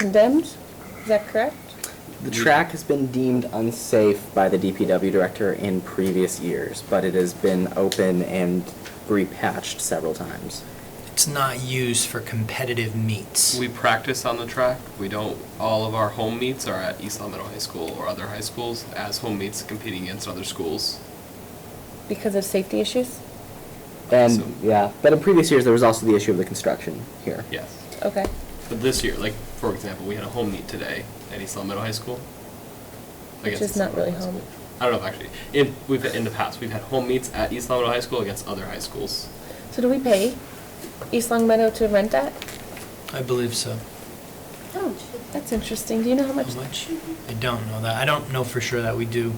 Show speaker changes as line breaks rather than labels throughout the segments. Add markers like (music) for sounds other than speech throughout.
condemned, is that correct?
The track has been deemed unsafe by the DPW director in previous years, but it has been open and repatched several times.
It's not used for competitive meets.
We practice on the track. We don't, all of our home meets are at East Long Meadow High School or other high schools as home meets competing against other schools.
Because of safety issues?
And,
So-
yeah, but in previous years, there was also the issue of the construction here.
Yes.
Okay.
But this year, like, for example, we had a home meet today at East Long Meadow High School.
Which
against
is
East
not
Long Meadow
really
High
home.
School. I don't know if actually, in, we've, in the past, we've had home meets at East Long Meadow High School against other high schools.
So do we pay East Long Meadow to rent that?
I believe so.
Oh, that's interesting. Do you know how much?
How much? I don't know that. I don't know for sure that we do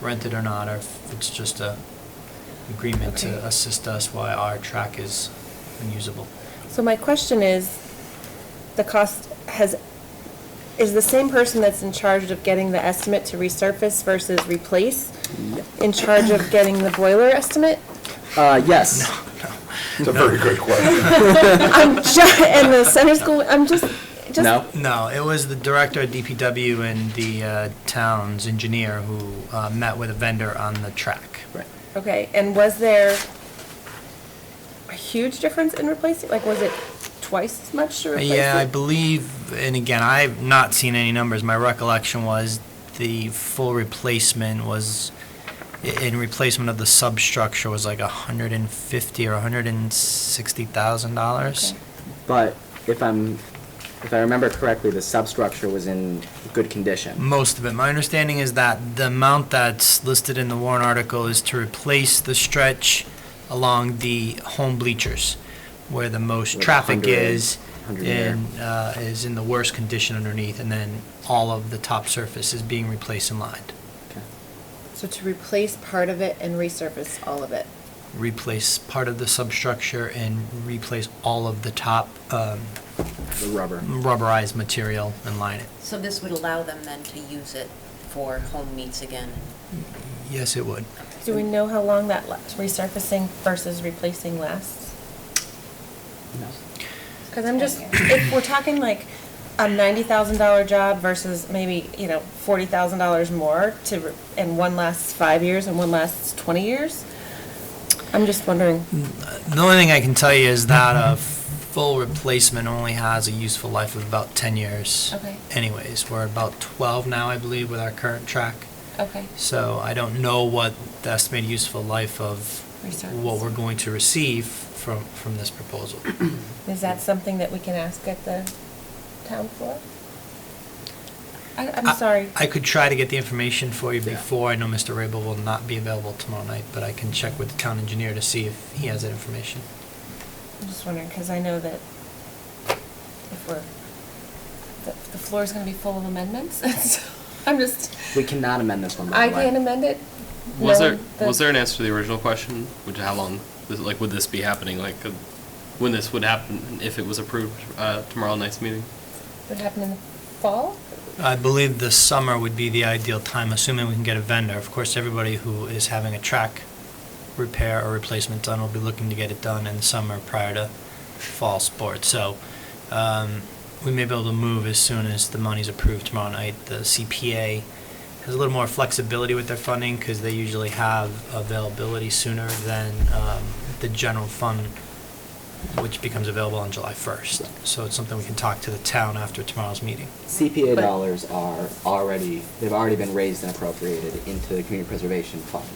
rent it or not, or if it's just a agreement
Okay.
to assist us while our track is unusable.
So my question is, the cost has, is the same person that's in charge of getting the estimate to resurface versus replace in charge of getting the boiler estimate?
Uh, yes.
It's a very good question.
I'm ju- and the center school, I'm just, just.
No?
No, it was the director of DPW and the uh, town's engineer who uh, met with a vendor on the track.
Right.
Okay, and was there a huge difference in replacing, like, was it twice as much to replace it?
Yeah, I believe, and again, I've not seen any numbers. My recollection was the full replacement was, i- in replacement of the substructure was like a hundred and fifty or a hundred and sixty thousand dollars.
Okay.
But if I'm, if I remember correctly, the substructure was in good condition.
Most of it. My understanding is that the amount that's listed in the warrant article is to replace the stretch along the home bleachers, where the most
Like a
traffic
hundred-
is,
hundred there.
and uh, is in the worst condition underneath, and then all of the top surface is being replaced and lined.
Okay.
So to replace part of it and resurface all of it?
Replace part of the substructure and replace all of the top um,
The rubber.
rubberized material and line it.
So this would allow them then to use it for home meets again?
Yes, it would.
Do we know how long that la- resurfacing versus replacing lasts?
No.
Because I'm just, if we're talking like a ninety thousand dollar job versus maybe, you know, forty thousand dollars more to, re- and one lasts five years and one lasts twenty years, I'm just wondering.
The only thing I can tell you is that a full replacement only has a useful life of about 10 years.
Okay.
Anyways, we're about 12 now, I believe, with our current track.
Okay.
So I don't know what the estimated useful life of what
Resurface.
we're going to receive from, from this proposal.
Is that something that we can ask at the town floor? I, I'm
I-
sorry.
I could try to get the information for you
Yeah.
before. I know Mr. Rabel will not be available tomorrow night, but I can check with the town engineer to see if he has that information.
I'm just wondering, because I know that if we're, the, the floor is going to be full of amendments, (laughs) so I'm just,
We cannot amend this one, by
I
the way.
can amend it.
Was there,
knowing that-
was there an answer to the original question? Which, how long, this- like, would this be happening? Like, could- when this would happen, if it was approved, uh, tomorrow night's meeting?
Would happen in the fall?
I believe the summer would be the ideal time, assuming we can get a vendor. Of course, everybody who is having a track repair or replacement done will be looking to get it done in the summer prior to fall sports. So um, we may be able to move as soon as the money's approved tomorrow night. The CPA has a little more flexibility with their funding because they usually have availability sooner than um, the general fund, which becomes available on July 1st. So it's something we can talk to the town after tomorrow's meeting.
CPA
But-
dollars are already, they've already been raised and appropriated into the community preservation funds.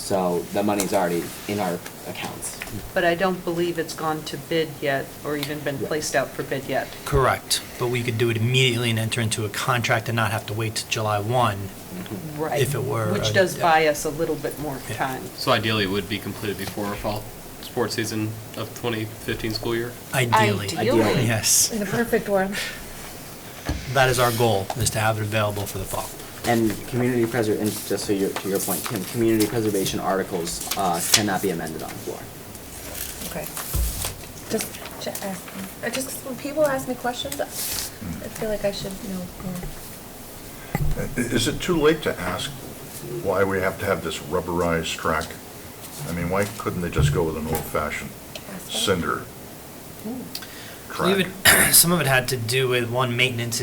So the money's already in our accounts.
But I don't believe it's gone to bid yet, or even been
Yeah.
placed out for bid yet.
Correct, but we could do it immediately and enter into a contract and not have to wait till July 1.
Right.
If it were a-
Which does buy us a little bit more
Yeah.
time.
So ideally, it would be completed before fall sports season of 2015 school year?
Ideally.
Ideally.
Yes,
In a perfect world.
that is our goal, is to have it available for the fall.
And community preser, and just so you, to your point, Kim, community preservation articles uh, cannot be amended on the floor.
Okay. Just, ju- asking. I just, when people ask me questions, I feel like I should know more.
Is it too late to ask why we have to have this rubberized track? I mean, why couldn't they just go with an old-fashioned
Ask them.
cinder?
believe (clears throat)
track?
it, some of it had to do with, one, maintenance